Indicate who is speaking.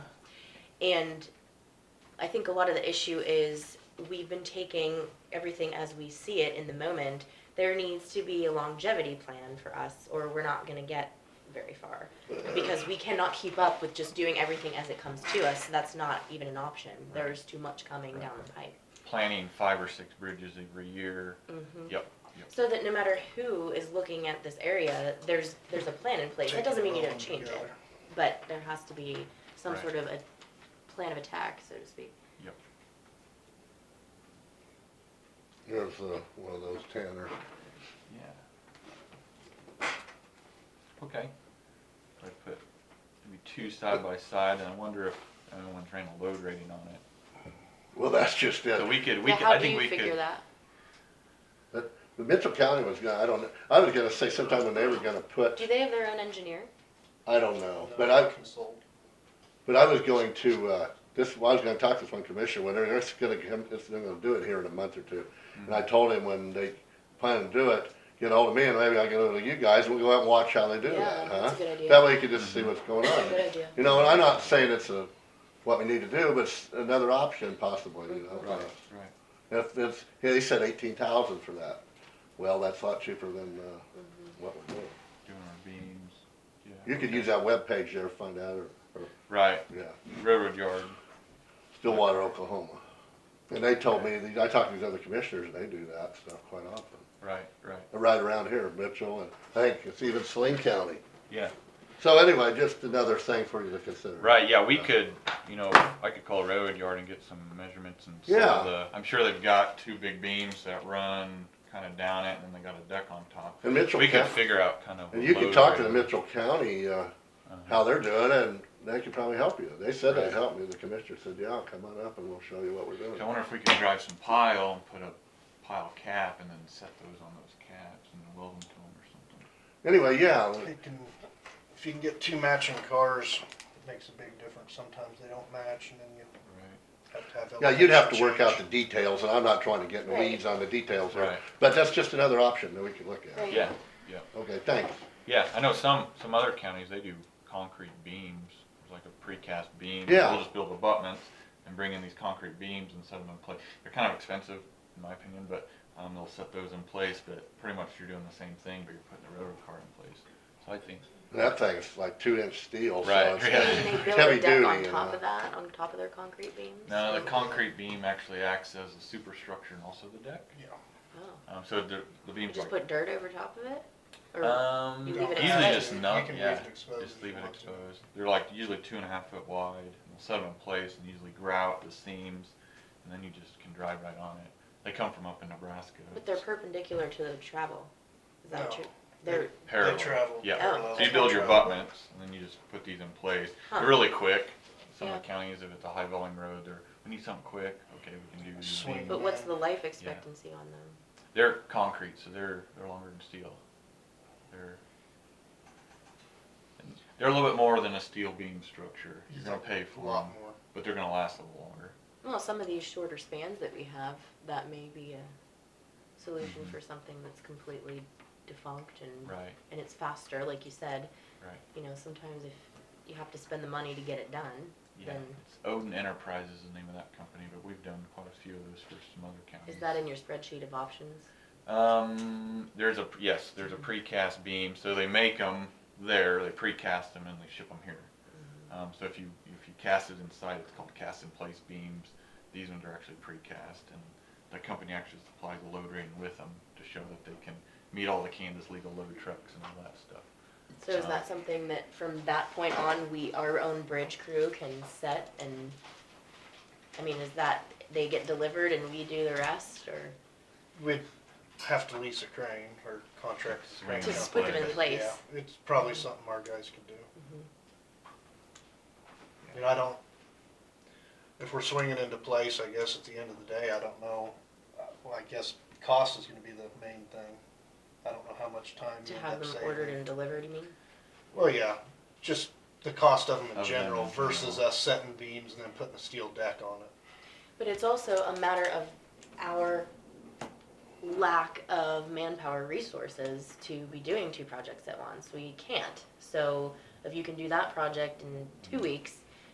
Speaker 1: And I think a lot of the issue is we've been taking everything as we see it in the moment. There needs to be a longevity plan for us, or we're not gonna get very far. Because we cannot keep up with just doing everything as it comes to us, that's not even an option, there's too much coming down the pipe.
Speaker 2: planning five or six bridges every year.
Speaker 1: Mhm.
Speaker 2: Yep, yep.
Speaker 1: So that no matter who is looking at this area, there's, there's a plan in place, that doesn't mean you don't change it, but there has to be some
Speaker 2: Right.
Speaker 1: sort of a plan of attack, so to speak.
Speaker 3: There's uh, one of those Tanner.
Speaker 2: Yeah. Okay. I put maybe two side by side, and I wonder if anyone's ran a load rating on it.
Speaker 3: Well, that's just it.
Speaker 2: So we could, we
Speaker 1: Yeah,
Speaker 2: could,
Speaker 1: how
Speaker 2: I
Speaker 1: do
Speaker 2: think
Speaker 1: you
Speaker 2: we
Speaker 1: figure
Speaker 2: could,
Speaker 1: that?
Speaker 3: But Mitchell County was gonna, I don't know, I was gonna say sometime when they were gonna put,
Speaker 1: Do they have their own engineer?
Speaker 3: I don't know, but I,
Speaker 4: Consult.
Speaker 3: but I was going to, uh, this, well, I was gonna talk to this one commissioner, when they're, it's gonna, come- it's, they're gonna do it here in a month or two. And I told him when they plan to do it, get ahold of me and maybe I'll get over to you guys and we'll go out and watch how they do
Speaker 1: Yeah,
Speaker 3: that, huh?
Speaker 1: that's a good idea.
Speaker 3: That way you can just see what's going
Speaker 1: That's a good
Speaker 3: on.
Speaker 1: idea.
Speaker 3: You know, and I'm not saying it's a, what we need to do, but it's another option possibly, you know? uh,
Speaker 2: right, right.
Speaker 3: If it's, yeah, they said eighteen thousand for that. Well, that's a lot cheaper than, uh, what we're doing.
Speaker 2: Doing our beams. Yeah,
Speaker 3: You could
Speaker 2: okay.
Speaker 3: use that webpage there, to find out, or,
Speaker 2: Right,
Speaker 3: yeah,
Speaker 2: railroad yard.
Speaker 3: Stillwater, Oklahoma. And they told me, I talked to these other commissioners, and they do that stuff quite often.
Speaker 2: Right, right.
Speaker 3: Right around here, Mitchell, and I think it's even Saline County.
Speaker 2: Yeah.
Speaker 3: So anyway, just another thing for you to consider.
Speaker 2: Right, yeah, we
Speaker 3: Yeah.
Speaker 2: could, you know, I could call railroad yard and get some measurements and some
Speaker 3: Yeah.
Speaker 2: of the, I'm sure they've got two big beams that run kinda down it and then they got a deck on top.
Speaker 3: And Mitchell
Speaker 2: We could
Speaker 3: County-
Speaker 2: figure out kind of.
Speaker 3: And
Speaker 2: a
Speaker 3: you can
Speaker 2: load
Speaker 3: talk to the
Speaker 2: rate.
Speaker 3: Mitchell County, uh,
Speaker 2: Uh-huh.
Speaker 3: how they're doing, and they could probably help you. They said they'd help me, the commissioner said, yeah, come on up and we'll show you what we're doing.
Speaker 2: I wonder if we could drive some pile and put a pile cap and then set those on those caps and weld them to them or something.
Speaker 3: Anyway, yeah,
Speaker 4: They can, if you can get two matching cars, it makes a big difference. Sometimes they don't match and then you
Speaker 2: Right,
Speaker 4: have to have.
Speaker 3: Yeah, you'd have to work out the
Speaker 4: elevation
Speaker 3: details, and I'm not trying to get in the
Speaker 1: Right.
Speaker 3: weeds on the details there.
Speaker 2: Right.
Speaker 3: But that's just another option that we could look at.
Speaker 1: Right.
Speaker 2: yeah,
Speaker 3: Okay, thanks.
Speaker 2: yeah, I know some, some other counties, they do concrete beams, It's like a precast beam.
Speaker 3: Yeah.
Speaker 2: They'll just build abutments and bring in these concrete beams and set them in place. They're kind of expensive, in my opinion, but, um, they'll set those in place, but pretty much you're doing the same thing, but you're putting the railroad car in place. So I think,
Speaker 3: And That thing's like two inch steel, so
Speaker 2: Right,
Speaker 3: it's
Speaker 2: yeah.
Speaker 1: And
Speaker 3: heavy
Speaker 1: they build
Speaker 3: it's heavy
Speaker 1: a deck
Speaker 3: duty.
Speaker 1: on
Speaker 3: you
Speaker 1: top
Speaker 3: know.
Speaker 1: of that, on top of their concrete beams?
Speaker 2: no, the concrete beam actually acts as a superstructure and also the deck.
Speaker 4: change.
Speaker 1: Oh.
Speaker 2: Um, so the, the
Speaker 1: You
Speaker 2: beams
Speaker 1: just
Speaker 2: like
Speaker 1: put dirt over top of it? Or-
Speaker 2: Um,
Speaker 1: You leave it
Speaker 2: usually
Speaker 1: exposed?
Speaker 2: just
Speaker 4: You
Speaker 2: not,
Speaker 4: can leave
Speaker 2: yeah,
Speaker 4: it exposed
Speaker 2: just
Speaker 4: if
Speaker 2: leave
Speaker 4: you
Speaker 2: it
Speaker 4: want to.
Speaker 2: exposed. They're like usually two and a half foot wide, and we'll set them in place and usually grout the seams, and then you just can drive right on it. They come from up in Nebraska.
Speaker 1: But they're
Speaker 2: It's
Speaker 1: perpendicular to the travel. Is that
Speaker 4: No.
Speaker 1: true? They're,
Speaker 2: parallel.
Speaker 4: travel
Speaker 2: Yeah,
Speaker 1: parallel.
Speaker 2: so you build your
Speaker 4: Travel.
Speaker 2: abutments, and then you just put these in place.
Speaker 1: Oh. Huh.
Speaker 2: They're really quick. Some
Speaker 1: Yeah.
Speaker 2: of the counties, if it's a high volume road, they're, we need something quick, okay, we can do these
Speaker 4: Swing.
Speaker 2: beams.
Speaker 1: but what's the life expectancy on them?
Speaker 2: They're concrete, so they're, they're longer than steel. They're, they're a little bit more than a steel beam structure. You're gonna pay
Speaker 4: A
Speaker 2: for them,
Speaker 4: lot more.
Speaker 2: but they're gonna last a little longer.
Speaker 1: Well, some of these shorter spans that we have, that may be a solution
Speaker 2: Mhm.
Speaker 1: for something that's completely defunct and,
Speaker 2: Right,
Speaker 1: and it's faster, like you said.
Speaker 2: right.
Speaker 1: You know, sometimes if you have to spend the money to get it done,
Speaker 2: Yeah,
Speaker 1: then
Speaker 2: it's Odin Enterprises is the name of that company, but we've done quite a few of those for some other counties.
Speaker 1: is that in your spreadsheet of options?
Speaker 2: Um, there's a, yes, there's a precast beam, so they make them there, they precast them and they ship them here. Um, so if you, if you cast it inside, it's called cast in place beams. These ones are actually precast and the company actually supplies the load rating with them to show that they can meet all the Kansas legal load trucks and all that stuff.
Speaker 1: So is
Speaker 2: Uh,
Speaker 1: that something that from that point on, we, our own bridge crew can set and, I mean, is that, they get delivered and we do the rest or?
Speaker 4: We'd have to lease a crane or contract a
Speaker 2: Swing.
Speaker 4: crane.
Speaker 1: To
Speaker 2: Just
Speaker 4: company.
Speaker 1: put them in
Speaker 2: place.
Speaker 1: place?
Speaker 4: Yeah, it's probably something our guys could do.
Speaker 1: Mhm. Mm-hmm.
Speaker 4: You know, I don't, if we're swinging into place, I guess at the end of the day, I don't know. Uh, Well, I guess cost is gonna be the main thing. I don't know how much time
Speaker 1: To
Speaker 4: you end
Speaker 1: have
Speaker 4: up
Speaker 1: them
Speaker 4: saving.
Speaker 1: ordered and delivered, you mean?
Speaker 4: Well, yeah, just the cost of them
Speaker 2: Of
Speaker 4: in
Speaker 2: them
Speaker 4: general
Speaker 2: in
Speaker 4: versus
Speaker 2: general.
Speaker 4: us setting beams and then putting a steel deck on it.
Speaker 1: But it's also a matter of our lack of manpower resources to be doing two projects at once. We can't. So if you can do that project in two weeks,